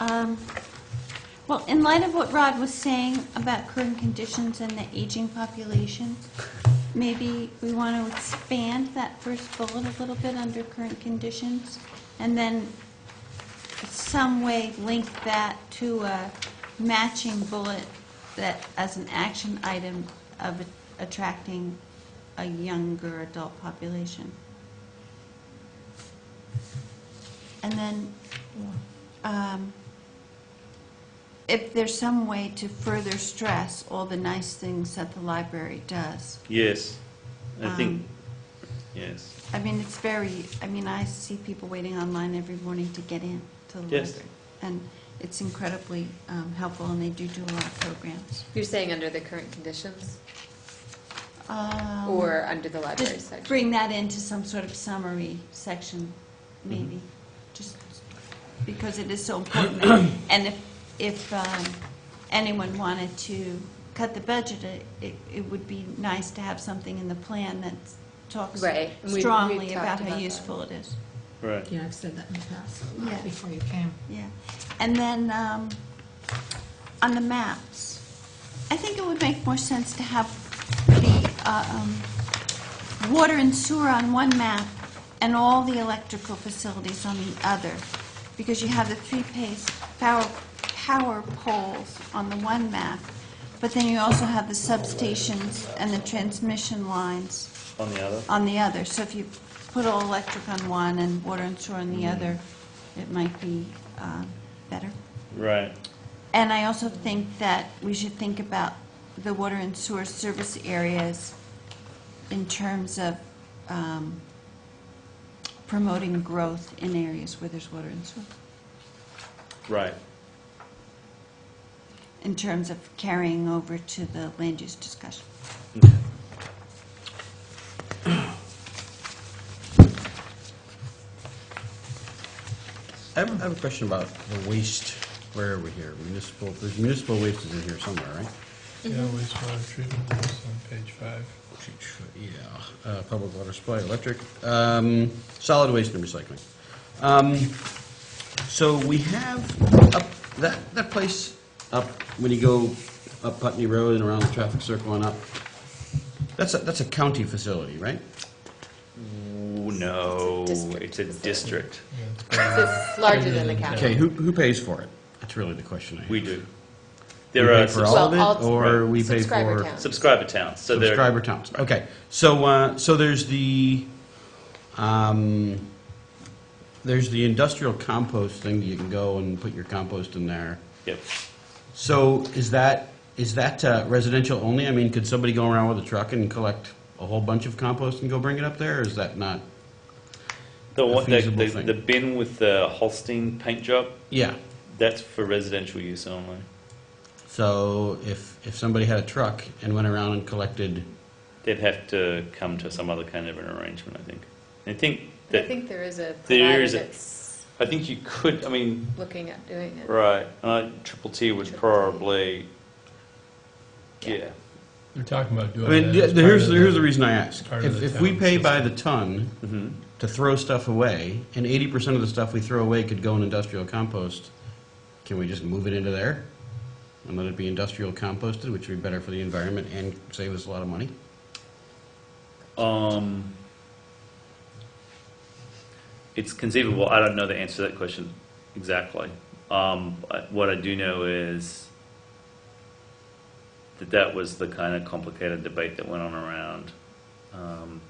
Um, Well, in light of what Rod was saying about current conditions and the aging population, maybe we want to expand that first bullet a little bit under current conditions, and then some way link that to a matching bullet that, as an action item of attracting a younger adult population. And then, um, if there's some way to further stress all the nice things that the library does. Yes, I think, Um, yes. I mean, it's very, I mean, I see people waiting online every morning to get in to the Yes. library. And it's incredibly um, helpful, and they do do a lot of programs. You're saying under the current conditions Um, or under the library Just section? bring that into some sort of summary section, maybe, just because it is so important. And if, if um, anyone wanted to cut the budget, it- it, it would be nice to have something in the plan that talks Right, and we- we've strongly talked about about how that. useful it is. Right. Yeah, I've said that in the past, Yeah. before you came. Yeah, and then, um, on the maps, I think it would make more sense to have the, uh, um, water and sewer on one map and all the electrical facilities on the other, because you have the three-phase power, power poles on the one map, but then you also have the substations and the transmission lines On the other? on the other. So if you put all electric on one and water and sewer on the other, it might be um, better. Right. And I also think that we should think about the water and sewer service areas in terms of um, promoting growth in areas where there's water and sewer, Right. in terms of carrying over to the land use discussion. I have, I have a question about the waste, where are we here, municipal, there's municipal waste is in here somewhere, right? Yeah, Mm-hmm. wastewater treatment is on page five. Yeah, uh, public water supply, electric, um, solid waste and recycling. Um, so we have up, that, that place up, when you go up Putney Road and around the traffic circle and up, that's a, that's a county facility, right? Ooh, no, district. it's a district. Yeah, it's So got- It's larger than the Okay, Okay, county. who, who pays for it? That's really the question I have. We do. We There are pay for all subs- of it, Well, all- or we pay subscriber for? count. subscriber towns, so there. Subscriber towns, okay. So, uh, so there's the, um, there's the industrial compost thing, that you can go and put your compost in there. Yep. So is that, is that uh, residential only? I mean, could somebody go around with a truck and collect a whole bunch of compost and go bring it up there, or is that not? The A one, the, feasible the thing. the bin with the Holstein paint job, Yeah, that's for residential use only. so if, if somebody had a truck and went around and collected, They'd have to come to some other kind of an arrangement, I think. I think I that, think there is a There provider is a- that's I think you could, I mean, looking at doing it. right, uh, Triple T would Triple T. probably, yeah, They're talking about doing I that. mean, as yeah, part here's, of here's the- the reason I ask. part of If, the if we town pay by the system. ton, hmm to throw stuff away, and eighty percent of the stuff we throw away could go in industrial compost, can we just move it into there? And let it be industrial composted, which would be better for the environment and save us a lot of money? Um, it's conceivable. I don't know the answer to that question exactly. Um, I- what I do know is that that was the kind of complicated debate that went on around um,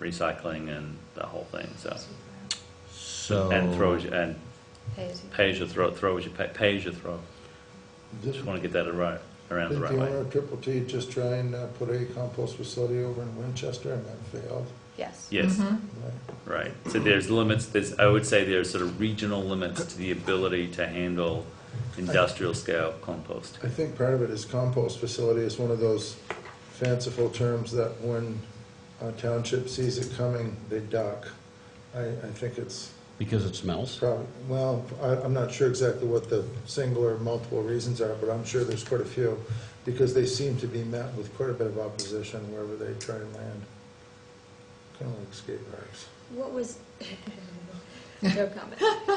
recycling and the whole thing. So So. and throw as you, and Pay as you- pay as you throw, throw as you pay, pay as you throw. This Just one, want to get that right around the didn't the right owner way. of Triple T just try and uh, put a compost facility over in Winchester and that failed? Yes. Yes. Right. Right. So there's limits, there's, I would say there's sort of regional limits to the ability to handle industrial scale compost. I think part of it is compost facility is one of those fanciful terms that when a township sees it coming, they duck. I, I think it's Because it smells? probably, well, I, I'm not sure exactly what the single or multiple reasons are, but I'm sure there's quite a few, because they seem to be met with quite a bit of opposition wherever they try and land. Kind of like skate parks. What was, no comment.